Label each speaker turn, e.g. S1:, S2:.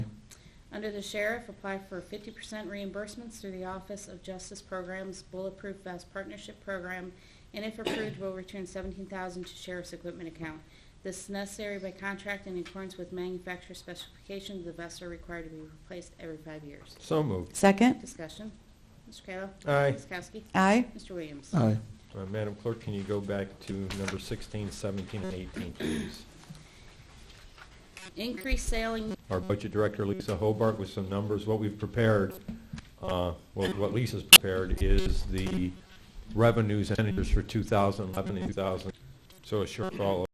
S1: Under the sheriff, apply for 50% reimbursements through the Office of Justice Programs Bulletproof Vest Partnership Program, and if approved, will return 17000 to sheriff's equipment account. This is necessary by contract in accordance with manufacturer specifications. The vests are required to be replaced every five years.
S2: So moved.
S3: Second.
S1: Discussion. Mr. Kayla.
S2: Aye.
S1: Ms. Kowski.
S3: Aye.
S1: Mr. Williams.
S4: aye,
S2: Uh, Madam Clerk, can you go back to number 16, 17, and 18, please?
S1: Increased sailing
S2: Our Budget Director, Lisa Hobart, with some numbers. What we've prepared, uh, well, what Lisa's prepared is the revenues and expenditures for 2011 and 2000, so a shortfall